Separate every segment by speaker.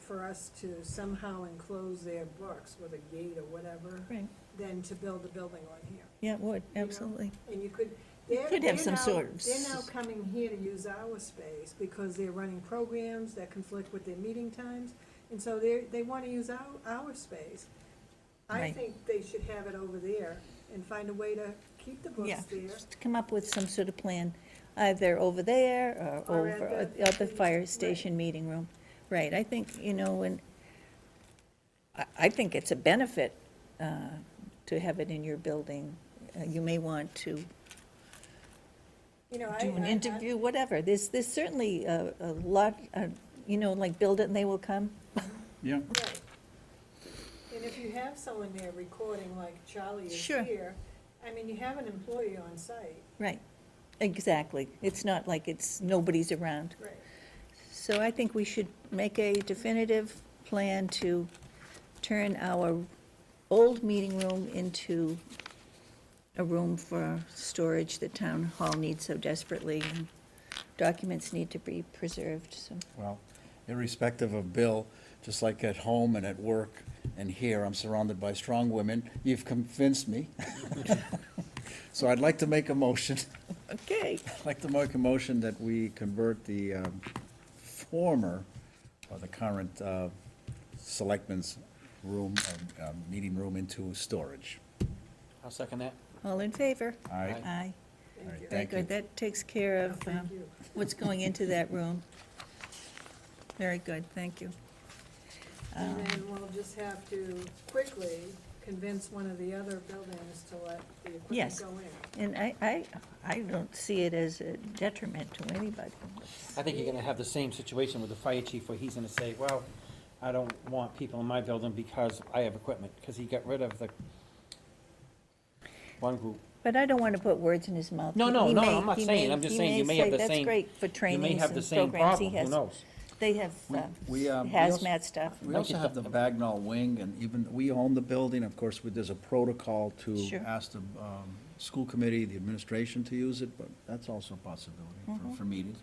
Speaker 1: for us to somehow enclose their books with a gate or whatever
Speaker 2: Right,
Speaker 1: than to build a building on here.
Speaker 2: yeah, it would,
Speaker 1: know?
Speaker 2: absolutely.
Speaker 1: And you could,
Speaker 2: You
Speaker 1: they're,
Speaker 2: could have
Speaker 1: they're
Speaker 2: some
Speaker 1: now-
Speaker 2: sort of
Speaker 1: They're now
Speaker 2: s-
Speaker 1: coming here to use our space because they're running programs that conflict with their meeting times. And so they, they want to use our, our space. I
Speaker 2: Right.
Speaker 1: think they should have it over there and find a way to keep the
Speaker 2: Yeah,
Speaker 1: books there.
Speaker 2: just come up with some sort of plan, either over there or
Speaker 1: Or at
Speaker 2: over at
Speaker 1: the-
Speaker 2: the other fire
Speaker 1: right.
Speaker 2: station meeting room. Right, I think, you know, and I, I think it's a benefit uh, to have it in your building. Uh, You may want to
Speaker 1: You know, I.
Speaker 2: do an
Speaker 1: I- I-
Speaker 2: interview, whatever. There's, there's certainly a, a lot, uh, you know, like build it and they will come.
Speaker 3: Yeah,
Speaker 1: Right. And if you have someone there recording like Charlie is
Speaker 2: Sure.
Speaker 1: here, I mean, you have an employee on site.
Speaker 2: Right, exactly. It's not like it's, nobody's around.
Speaker 1: Right.
Speaker 2: So I think we should make a definitive plan to turn our old meeting room into a room for storage that town hall needs so desperately. and Documents need to be preserved, so,
Speaker 3: well, irrespective of Bill, just like at home and at work and here, I'm surrounded by strong women. You've convinced me. So I'd like to make a motion,
Speaker 2: okay.
Speaker 3: I'd like to make a motion that we convert the um, former, or the current uh, selectmen's room, uh, uh, meeting room into storage.
Speaker 4: I'll second that.
Speaker 2: All in favor?
Speaker 3: All right?
Speaker 2: Aye.
Speaker 3: All right,
Speaker 1: Thank you.
Speaker 2: Very
Speaker 3: thank
Speaker 2: good,
Speaker 3: you.
Speaker 2: that takes care of
Speaker 1: Thank
Speaker 2: um,
Speaker 1: you.
Speaker 2: what's going into that room. Very good, thank you. Um,
Speaker 1: And then we'll just have to quickly convince one of the other buildings to let the equipment
Speaker 2: Yes.
Speaker 1: go in.
Speaker 2: And I, I, I don't see it as a detriment to anybody.
Speaker 4: I think you're gonna have the same situation with the fire chief where he's gonna say, well, I don't want people in my building because I have equipment, because he got rid of the one group.
Speaker 2: But I don't want to put words in his mouth.
Speaker 4: No,
Speaker 2: He-
Speaker 4: no,
Speaker 2: he
Speaker 4: no,
Speaker 2: may-
Speaker 4: I'm not
Speaker 2: he
Speaker 4: saying, I'm just
Speaker 2: he
Speaker 4: saying you may have
Speaker 2: say,
Speaker 4: the
Speaker 2: That's
Speaker 4: same-
Speaker 2: great for
Speaker 4: You may
Speaker 2: trainings
Speaker 4: have the
Speaker 2: and
Speaker 4: same
Speaker 2: programs he
Speaker 4: problem,
Speaker 2: has.
Speaker 4: who knows?
Speaker 2: They have uh,
Speaker 3: We, um, we also-
Speaker 2: hazmat stuff.
Speaker 3: We also have the Bagnall Wing, and even, we own the building, of course, with- there's a protocol to
Speaker 2: Sure.
Speaker 3: ask the um, school committee, the administration to use it, but that's also a possibility
Speaker 2: Mm-hmm.
Speaker 3: for- for meetings.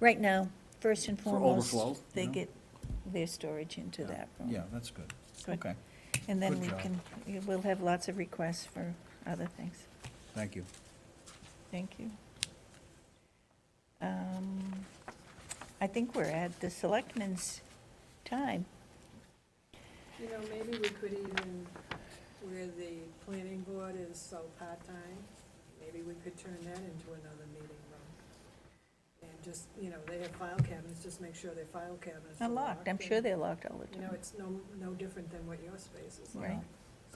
Speaker 2: Right now, first and
Speaker 3: For
Speaker 2: foremost,
Speaker 3: overflow, you
Speaker 2: they
Speaker 3: know?
Speaker 2: get their storage into that room.
Speaker 3: Yeah, that's good.
Speaker 2: Good.
Speaker 3: Okay,
Speaker 2: And then
Speaker 3: good
Speaker 2: we
Speaker 3: job.
Speaker 2: can, we'll have lots of requests for other things.
Speaker 3: thank you.
Speaker 2: Thank you. Um, I think we're at the selectmen's time.
Speaker 1: You know, maybe we could even, where the planning board is so part-time, maybe we could turn that into another meeting room. And just, you know, they have file cabinets, just make sure their file cabinets are
Speaker 2: They're locked, I'm sure
Speaker 1: and,
Speaker 2: they're locked all the
Speaker 1: You know,
Speaker 2: time.
Speaker 1: it's no, no different than what your space is like.
Speaker 2: Right,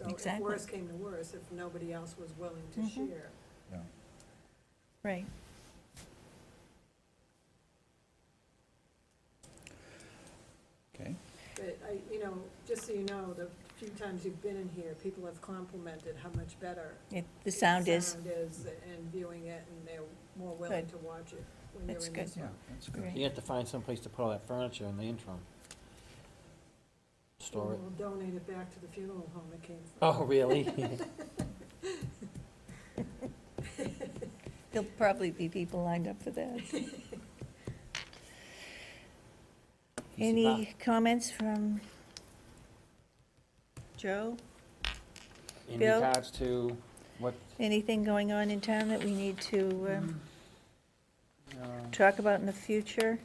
Speaker 1: So if
Speaker 2: exactly.
Speaker 1: worse came to worse, if nobody else was willing to
Speaker 2: Mhm.
Speaker 1: share,
Speaker 3: Yeah.
Speaker 2: right.
Speaker 3: Okay,
Speaker 1: But I, you know, just so you know, the few times you've been in here, people have complimented how much better.
Speaker 2: It- The sound is,
Speaker 1: Sound is, and viewing it, and they're more willing
Speaker 2: Good.
Speaker 1: to watch it when they're
Speaker 2: That's
Speaker 1: in
Speaker 2: good.
Speaker 1: this
Speaker 3: yeah,
Speaker 1: room.
Speaker 3: that's good.
Speaker 2: Right.
Speaker 4: You have to find someplace to put all that furniture in the interim. Store it.
Speaker 1: And We'll donate it back to the funeral home it came from.
Speaker 4: Oh, really?
Speaker 2: there'll probably be people lined up for that. Any comments from Joe?
Speaker 4: In
Speaker 2: Bill?
Speaker 4: regards to what,
Speaker 2: Anything going on in town that we need to um,
Speaker 4: uh,
Speaker 2: talk about in the future?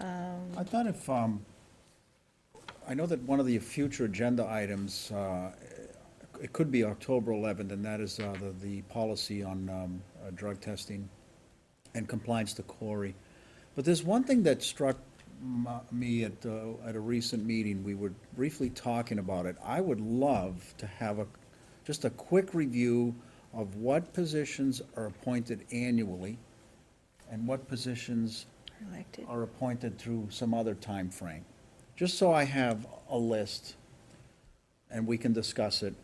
Speaker 2: Um,
Speaker 3: I thought if, um, I know that one of the future agenda items, uh, it could be October 11th, and that is uh, the, the policy on um, uh, drug testing and compliance to Corey. But there's one thing that struck m- me at, uh, at a recent meeting, we were briefly talking about it. I would love to have a, just a quick review of what positions are appointed annually and what positions
Speaker 2: Elected,
Speaker 3: are appointed through some other time frame, Just so I have a list and we can discuss it.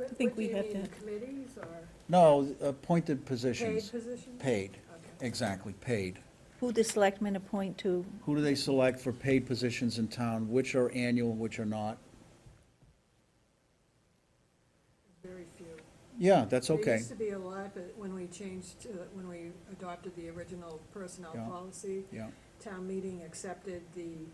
Speaker 1: I
Speaker 2: think we have to-
Speaker 1: Committees or
Speaker 3: No, appointed
Speaker 1: paid
Speaker 3: positions.
Speaker 1: positions?
Speaker 3: Paid,
Speaker 1: Okay.
Speaker 3: exactly, paid.
Speaker 2: who the selectmen appoint to,
Speaker 3: Who do they select for paid positions in town? Which are annual, which are not?
Speaker 1: Very few.
Speaker 3: Yeah, that's
Speaker 1: There
Speaker 3: okay.
Speaker 1: used to be a lot, but when we changed, to- when we adopted the original personnel
Speaker 3: Yeah.
Speaker 1: policy,
Speaker 3: Yeah,
Speaker 1: town meeting accepted the